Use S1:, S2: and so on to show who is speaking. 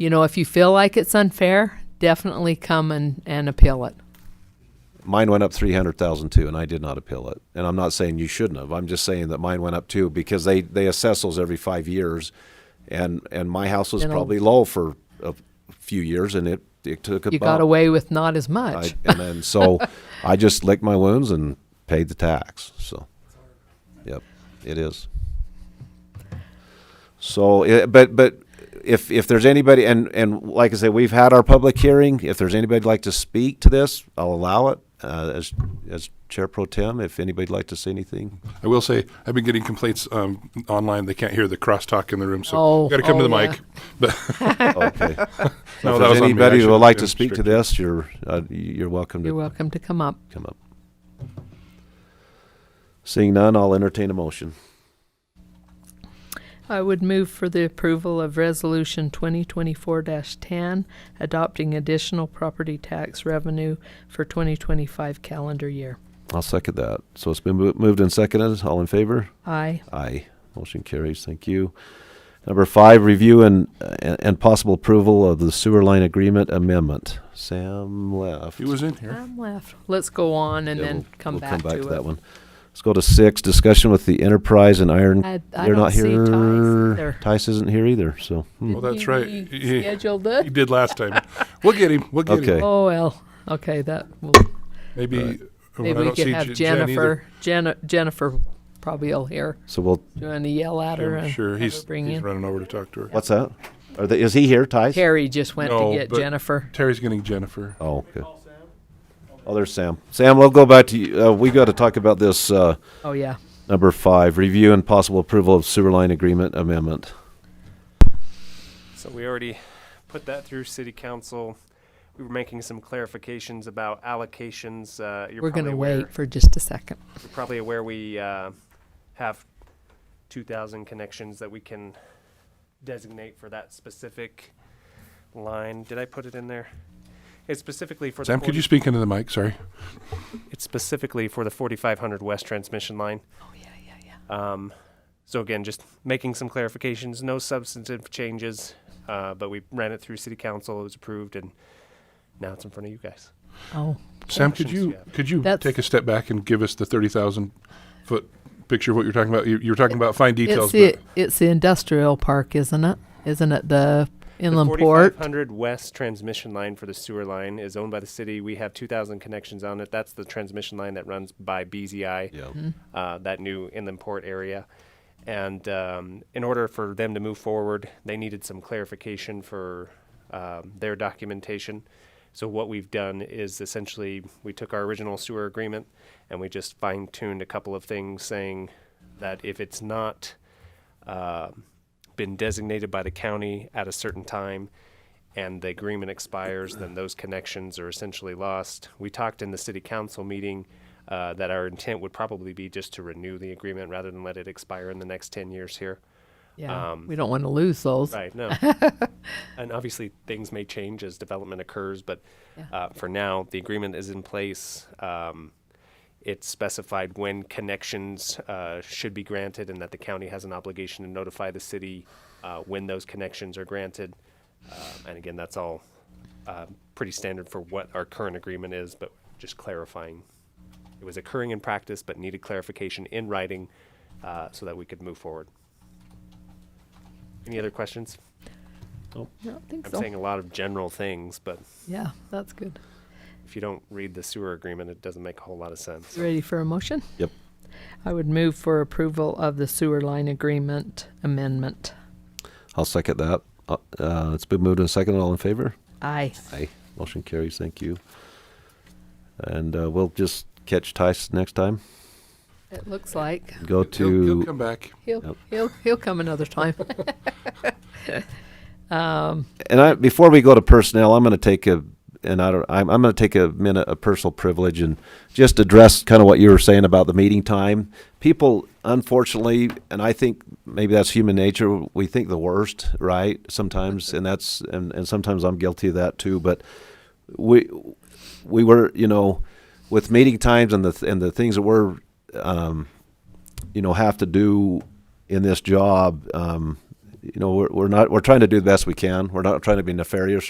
S1: you know, if you feel like it's unfair, definitely come and, and appeal it.
S2: Mine went up three hundred thousand too, and I did not appeal it. And I'm not saying you shouldn't have. I'm just saying that mine went up too because they they assess those every five years, and and my house was
S1: Then I'll-
S2: probably low for a few years, and it it took about.
S1: You got away with not as
S2: I,
S1: much.
S2: and then so I just licked my wounds and paid the tax. So, yep, it is. So, i- but but if if there's anybody and and like I say, we've had our public hearing. If there's anybody like to speak to this, I'll allow it uh, as as chair pro tem. If anybody'd like to say anything,
S3: I will say I've been getting complaints um, online. They can't hear the crosstalk in the room, so
S1: Oh,
S3: you got to come to
S1: oh,
S3: the
S1: yeah.
S3: mic. But
S2: okay.
S3: No,
S2: if
S3: that
S2: there's
S3: was on me. I
S2: anybody who would
S3: shouldn't
S2: like to
S3: have
S2: speak to
S3: restricted.
S2: this, you're uh, you're welcome to
S1: You're welcome to come up.
S2: come up. Seeing none, I'll entertain a motion.
S1: I would move for the approval of Resolution 2024-10, adopting additional property tax revenue for 2025 calendar year.
S2: I'll second that. So it's been mo- moved and seconded. All in favor?
S1: Aye.
S2: Aye. Motion carries. Thank you. Number five, review and, and and possible approval of the sewer line agreement amendment. Sam left.
S3: he was in here.
S1: I'm left. Let's go on and
S2: Yeah,
S1: then
S2: we'll-
S1: come
S2: we'll
S1: back to it.
S2: that one. Let's go to six, discussion with the Enterprise and Iron.
S1: I- I
S2: They're
S1: don't
S2: not
S1: see
S2: here.
S1: Tice either.
S2: Tice isn't here either, so. hmm.
S3: Well, that's right.
S1: You
S3: He, he-
S1: Scheduled
S3: he
S1: it?
S3: did last time. We'll get him. We'll get
S2: Okay.
S3: him.
S1: Oh, well, okay, that, will-
S3: Maybe, when I
S1: maybe we
S3: don't
S1: could
S3: see
S1: have
S3: J- Jen either,
S1: Jennifer, Jen- Jennifer probably will hear.
S2: So we'll,
S1: Do you want to yell at her?
S3: I'm
S1: and
S3: sure
S1: have
S3: he's,
S1: her bring
S3: he's
S1: in?
S3: running over to talk to her.
S2: what's that? Are they, is he here, Tice?
S1: Terry just went
S3: No,
S1: to get
S3: but-
S1: Jennifer.
S3: Terry's getting Jennifer.
S2: Oh, okay. Oh, there's Sam. Sam, we'll go back to you. Uh, we got to talk about this, uh,
S1: Oh, yeah.
S2: Number five, review and possible approval of sewer line agreement amendment.
S4: So we already put that through city council. We were making some clarifications about allocations. Uh, you're
S1: We're going
S4: probably
S1: to
S4: aware-
S1: wait for just a second.
S4: You're probably aware we uh, have 2,000 connections that we can designate for that specific line. Did I put it in there? It's specifically for the.
S3: Sam, could
S4: 40
S3: you speak into the mic? Sorry.
S4: It's specifically for the 4,500 west transmission line.
S1: Oh, yeah, yeah, yeah.
S4: Um, so again, just making some clarifications, no substantive changes, uh, but we ran it through city council, it was approved, and now it's in front of you guys.
S1: Oh,
S3: Sam, could
S4: Questions,
S3: you
S4: yeah.
S3: could you
S1: That's-
S3: take a step back and give us the thirty thousand foot picture of what you're talking about? You, you were talking about fine
S1: it's
S3: details.
S1: the, it's the industrial park, isn't it? Isn't it the inland
S4: the
S1: port?
S4: 4,500 west transmission line for the sewer line is owned by the city. We have 2,000 connections on it. That's the transmission line that runs by BZI.
S2: Yeah.
S4: uh, that new inland port area. And um, in order for them to move forward, they needed some clarification for um, their documentation. So what we've done is essentially we took our original sewer agreement and we just fine tuned a couple of things, saying that if it's not uh, been designated by the county at a certain time and the agreement expires, then those connections are essentially lost. We talked in the city council meeting uh, that our intent would probably be just to renew the agreement rather than let it expire in the next 10 years here.
S1: Yeah,
S4: um,
S1: we don't want to lose those.
S4: Right, no. and obviously, things may change as development occurs, but
S1: Yeah.
S4: uh, for now, the agreement is in place. Um, it's specified when connections uh, should be granted and that the county has an obligation to notify the city uh, when those connections are granted. Uh, and again, that's all uh, pretty standard for what our current agreement is, but just clarifying. It was occurring in practice, but needed clarification in writing uh, so that we could move forward. Any other questions?
S1: I don't think
S4: I'm
S1: so.
S4: saying a lot of general things, but
S1: Yeah, that's good.
S4: if you don't read the sewer agreement, it doesn't make a whole lot of sense.
S1: You Ready for a motion?
S2: Yep.
S1: I would move for approval of the sewer line agreement amendment.
S2: I'll second that. Uh, uh, it's been moved and seconded. All in favor?
S1: Aye.
S2: Aye. Motion carries. Thank you. And uh, we'll just catch Tice next time.
S1: It looks like
S2: Go
S3: He'll- he'll- he'll
S2: to
S3: come back.
S1: he'll
S2: Yep.
S1: he'll he'll come another time.
S2: and I before we go to personnel, I'm going to take a and I don't. I'm, I'm going to take a minute of personal privilege and just address kind of what you were saying about the meeting time. People, unfortunately, and I think maybe that's human nature. We think the worst, right? Sometimes, and that's and, and sometimes I'm guilty of that too. But we we were, you know, with meeting times and the th- and the things that we're um, you know have to do in this job um, you know, we're, we're not, we're trying to do the best we can. We're not trying to be nefarious or